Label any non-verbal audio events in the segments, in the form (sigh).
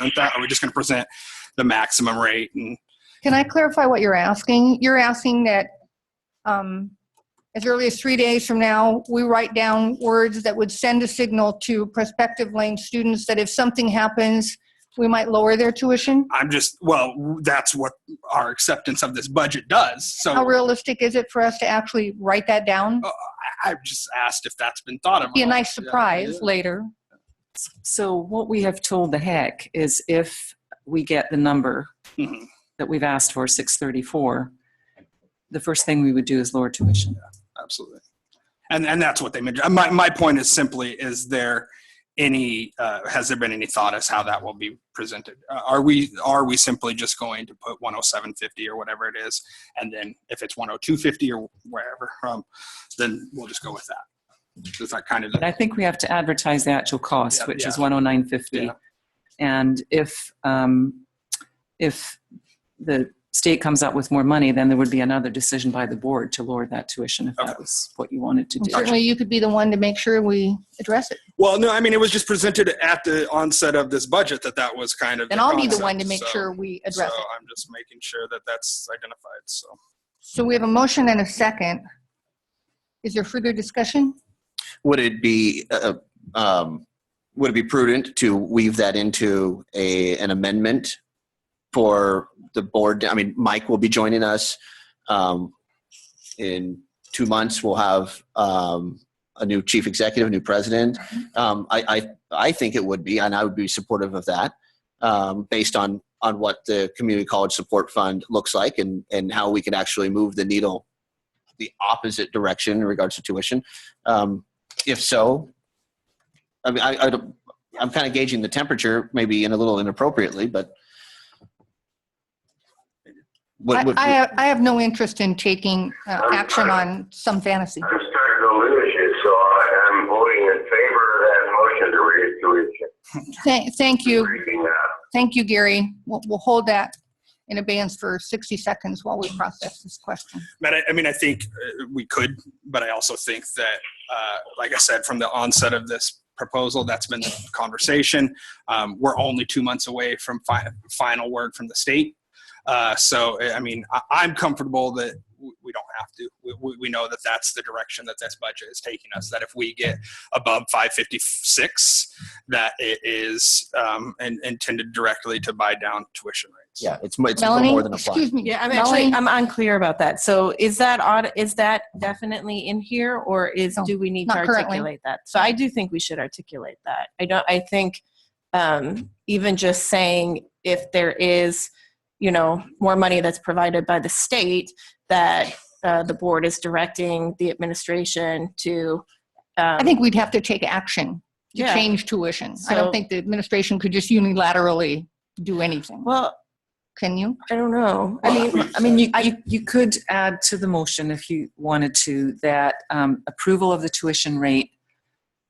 present that? Are we just going to present the maximum rate? And Can I clarify what you're asking? You're asking that um, as early as three days from now, we write down words that would send a signal to prospective Lane students that if something happens, we might lower their tuition? I'm just, well, that's what our acceptance of this budget does. So How realistic is it for us to actually write that down? I, I just asked if that's been thought of. Be a nice surprise later. So what we have told the heck is if we get the number Mhm. that we've asked for, 634, the first thing we would do is lower tuition. absolutely and and that's what they meant Uh, my, my point is simply is there any uh, has there been any thought as how that will be presented uh, are we are we simply just going to put 10750 or whatever it is and then if it's 10250 or wherever um, then we'll just go with that is that kind of But I the, think we have to advertise the actual cost, Yeah, which is yeah. 10950. Yeah. And if, um, if the state comes up with more money, then there would be another decision by the board to lower that tuition if Okay. that was what you wanted to do. Certainly, you could be the one to make sure we address it. well no i mean it was just presented at the onset of this budget that that was kind of Then I'll be the concept, one to make so- sure we so address it. i'm just making sure that that's identified so So we have a motion and a second. Is there further discussion? Would it be, uh, um, would it be prudent to weave that into a, an amendment for the board? I mean, Mike will be joining us. Um, in two months, we'll have, um, a new chief executive, new president. Mm-hmm. Um, I, I, I think it would be, and I would be supportive of that, um, based on, on what the community college support fund looks like and, and how we can actually move the needle the opposite direction in regards to tuition. Um, if so, I mean, I, I don't, I'm kind of gauging the temperature, maybe in a little inappropriately, but. What, I, what, I, I have no interest in taking uh, action on some fantasy. I'm starting to lose you, so I am voting in favor of that motion to raise tuition. Thank, thank you, Breaking up. thank you, Gary. We'll, we'll hold that in abeyance for 60 seconds while we process this question. But I, I mean, I think uh, we could, but I also think that, uh, like I said, from the onset of this proposal, that's been the conversation. Um, we're only two months away from fi- final word from the state. Uh, so, I I mean, I, I'm comfortable that w- we don't have to. We- We, we know that that's the direction that this budget is taking us. That if we get above 556, that it is um, in, intended directly to buy down tuition rates. yeah, it's, mo- it's Melanie, more than a fly. excuse me. Yeah, I'm actually, Melanie? I'm unclear about that. So is that on, is that definitely in here or is, No, do we need to not currently. articulate that? So I do think we should articulate that. I don't, I think, um, even just saying if there is, you know, more money that's provided by the state, that, uh, the board is directing the administration to, um, I think we'd have to take action to Yeah. change tuition. I don't So- think the administration could just unilaterally do anything. Well, Can you? I don't know. I I mean, mean, I mean, you, you, you could add to the motion if you wanted to, that um, approval of the tuition rate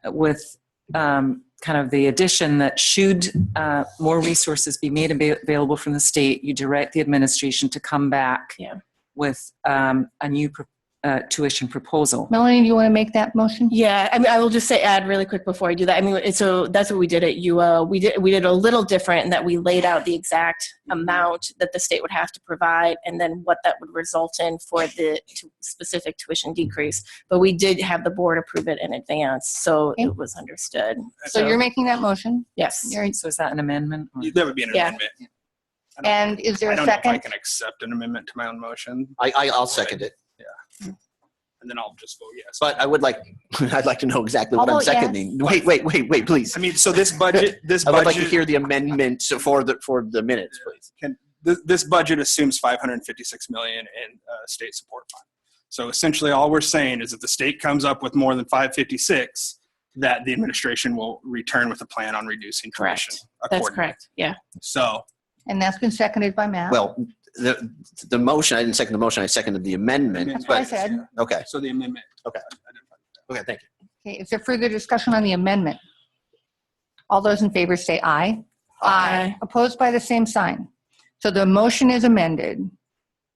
with um, kind of the addition that should uh, more resources be made ava- available from the state, you direct the administration to come back Yeah. with um, a new pro- uh, tuition proposal. Melanie, do you want to make that motion? Yeah, I mean, I will just say add really quick before I do that. I mean, it- so that's what we did at UO. We did we did a little different in that we laid out the exact Mm-hmm. amount that the state would have to provide, and then what that would result in for the tu- specific tuition decrease. But we did have the board approve it in advance, so Okay. it was understood. So you're making that motion? yes. You're- So is that an amendment? or- That would be an Yeah. amendment. I don't- And is there I a don't know if I second? can accept an amendment to my own motion, I, I, I'll second it, and then I'll just vote yes. uh, but I would like, (laughs) I'd like to know exactly what I'll I'm vote yes. seconding. Wait, wait, wait, wait, please. I mean, so this budget, this I would like to budget, hear the amendment for the, for the minutes, please. this, this budget assumes 556 million in uh, state support fund. So essentially, all we're saying is if the state comes up with more than 556, that the administration will return with a plan on reducing Correct. tuition. That's accordingly. correct. Yeah. So And that's been seconded by Matt. Well, the, the motion, I didn't second the motion, I seconded the amendment, That's what I but, said. okay, So the amendment. Okay. okay, thank you. Okay, is there further discussion on the amendment? All those in favor say aye. Aye. Opposed by the same sign. So the motion is amended.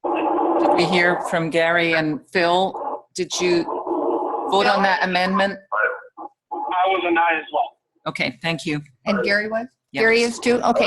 Did we hear from Gary and Phil? Did you vote on that amendment? I was a nine as well. Okay, thank you. And Gary was? Yeah. Gary is too? Okay,